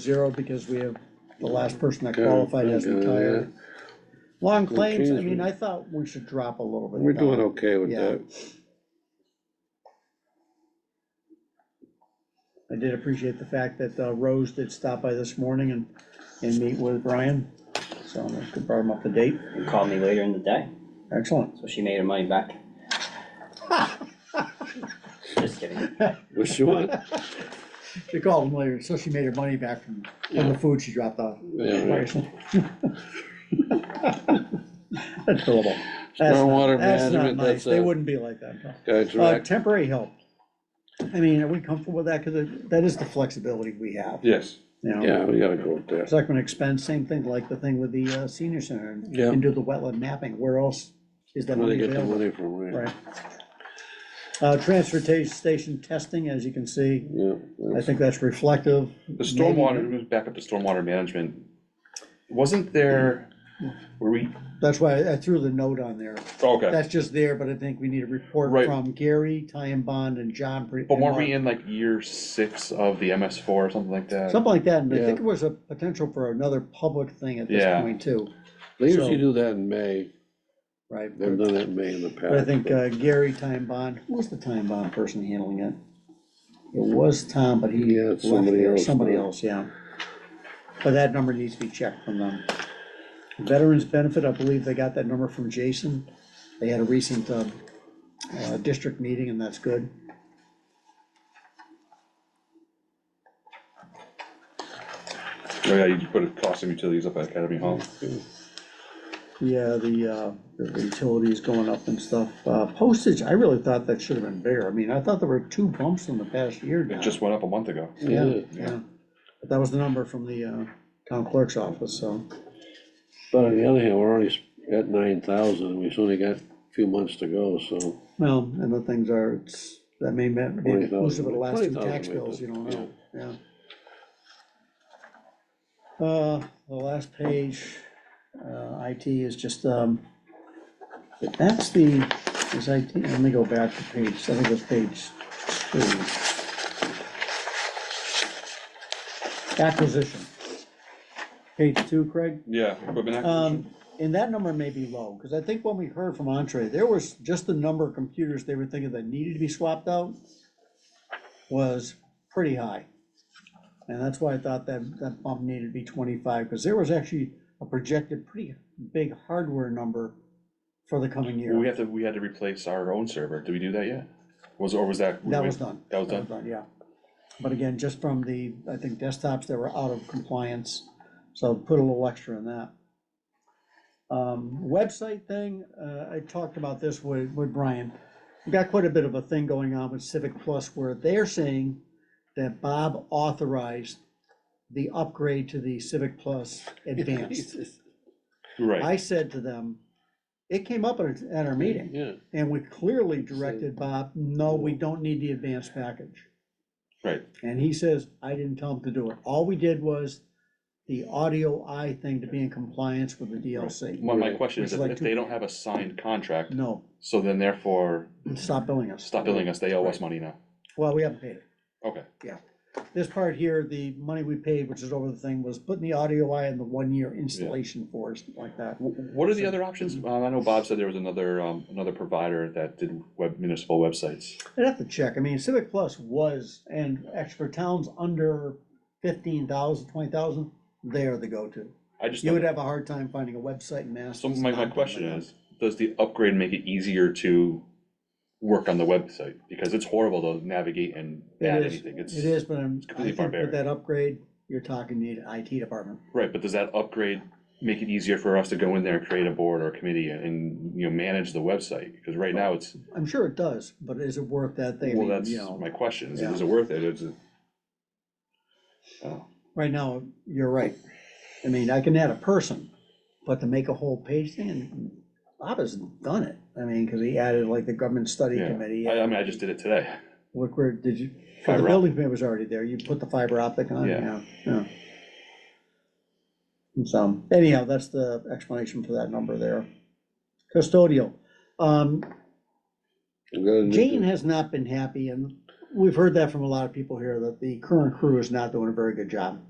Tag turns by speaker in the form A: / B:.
A: zero because we have, the last person that
B: Okay,
A: qualified has
B: okay,
A: retired. Long
B: Well,
A: claims, I
B: geez,
A: mean,
B: we-
A: I thought we should drop a little bit.
B: We're doing
A: now.
B: okay with
A: Uh, Yeah.
B: that.
A: I did appreciate the fact that uh, Rose did stop by this morning and, and meet with Brian, so I could brought him up to date,
C: and called me later in the day,
A: excellent.
C: so she made her money back. Just kidding.
B: What you want?
A: She called him later, so she made her money back from, from the food she dropped off.
B: Yeah, right.
A: That's billable. That's not-
B: Stormwater
A: That's not
B: management,
A: nice,
B: that's
A: they
B: a-
A: wouldn't be like that, no.
B: Guys,
A: Uh,
B: right?
A: temporary help. I mean, are we comfortable with that? Because that is the flexibility we have,
D: Yes.
A: you know?
B: Yeah, we gotta go with that.
A: Selectmen expense, same thing, like the thing with the uh, senior center and-
B: Yeah.
A: and do the wetland mapping. Where else is that
B: Where they
A: money
B: get the
A: available?
B: money from, right?
A: Right. Uh, transportation station testing, as you can see,
B: Yeah.
A: I
B: that's-
A: think that's reflective.
D: The stormwater, we back up to stormwater management. Wasn't there, were we, oh,
A: That's why I threw the note on there.
D: okay,
A: That's just there, but I think we need a report
D: Right.
A: from Gary, Ty and Bond and John. Pre-
D: but weren't we in like year six of the MS four or something like that?
A: Something like that, and I
B: Yeah.
A: think it was a potential for another public thing at this
D: Yeah.
A: point too,
B: They
A: so-
B: usually do that in May.
A: right?
B: They've done that in May in the past.
A: But I think uh, Gary Time Bond, who was the Time Bond person handling it? It was Tom, but he uh,
B: Yeah,
A: left,
B: it's somebody
A: it.
B: else uh,
A: somebody
B: now.
A: else, yeah. But that number needs to be checked from them. Veterans Benefit, I believe they got that number from Jason. They had a recent, uh, uh, district meeting, and that's good.
D: Oh, yeah, you put a cost of utilities up at Academy Hall.
A: Yeah, the, uh, the utilities going up and stuff. Uh, Postage, I really thought that should have been bigger. I mean, I thought there were two bumps in the past year now.
D: It just went up a month ago.
A: Yeah,
B: Yeah.
A: yeah. But that was the number from the uh, town clerk's office, so.
B: But on the other hand, we're already at nine thousand, and we've only got a few months to go, so.
A: Well, and the things are, it's, that may be be
B: 20,000,
A: inclusive of the last two
B: 20,000
A: tax
B: might be,
A: bills, you don't know, yeah. Uh, the last page, uh, IT is just, um, that's the, is IT, let me go back to page, I think it's page two. Acquisition. Page two, Craig?
D: Yeah, equipment acquisition.
A: Um, and that number may be low, because I think when we heard from Entree, there was just the number of computers they were thinking that needed to be swapped out was pretty high. And that's why I thought that, that bump needed to be twenty-five, because there was actually a projected pretty big hardware number for the coming
D: We
A: year.
D: have to, we had to replace our own server. Did we do that yet? Was, or was that?
A: That was done.
D: That was done?
A: Yeah. But again, just from the, I think desktops that were out of compliance, so put a little extra in that. Um, website thing, uh, I talked about this with, with Brian. We've got quite a bit of a thing going on with Civic Plus where they're saying that Bob authorized the upgrade to the Civic Plus Advanced.
D: Right,
A: I said to them, it came up at, our- at our meeting.
B: Yeah,
A: And we clearly directed Bob, no, we don't need the advanced package.
D: right.
A: And he says, I didn't tell him to do it. All we did was the audio eye thing to be in compliance with the DLC.
D: My, my
B: Right.
D: question is
A: It's
D: if
A: like
D: if
A: two-
D: they don't have a signed contract,
A: No,
D: so then therefore
A: stop billing us.
D: stop billing us, they owe us money now.
A: Well, we haven't paid it.
D: Okay,
A: This part here, the money we paid, which is over the thing, was putting the audio eye in the one-year installation for us, like that.
D: Wh- What are the other options?
A: mm-hmm.
D: Um, I know Bob said there was another, um, another provider that did web, municipal websites.
A: I'd have to check. I mean, Civic Plus was, and actually for towns under fifteen thousand, twenty thousand, they're the go-to.
D: I just,
A: You would
D: don't-
A: have a hard time finding a website in Mass.
D: so
A: that's
D: my, my
A: not-
D: question is, does the upgrade make it easier to work on the website? Because it's horrible to navigate and
A: It
D: add
A: is.
D: anything. It's,
A: It is, but I'm, I
D: completely
A: think with
D: barbaric.
A: that upgrade, you're talking the IT department.
D: right, but does that upgrade make it easier for us to go in there and create a board or a committee and- and, you know, manage the website? Because right now it's,
A: I'm sure it does, but is it worth that thing?
D: well, that's
A: You know,
D: my question. Is it-
A: yeah.
D: is it worth it? Is it? Oh,
A: right now, you're right. I mean, I can add a person, but to make a whole page thing, and Bob has done it. I mean, because he added like the government study
D: yeah.
A: committee.
D: I, I mean, I just did it today.
A: What, where, did you, so the
D: Fiber
A: building permit was already there, you put the fiber optic on, yeah,
D: Yeah.
A: yeah. So anyhow, that's the explanation for that number there. Custodial, um,
B: we gotta do-
A: Jane has not been happy, and we've heard that from a lot of people here, that the current crew is not doing a very good job.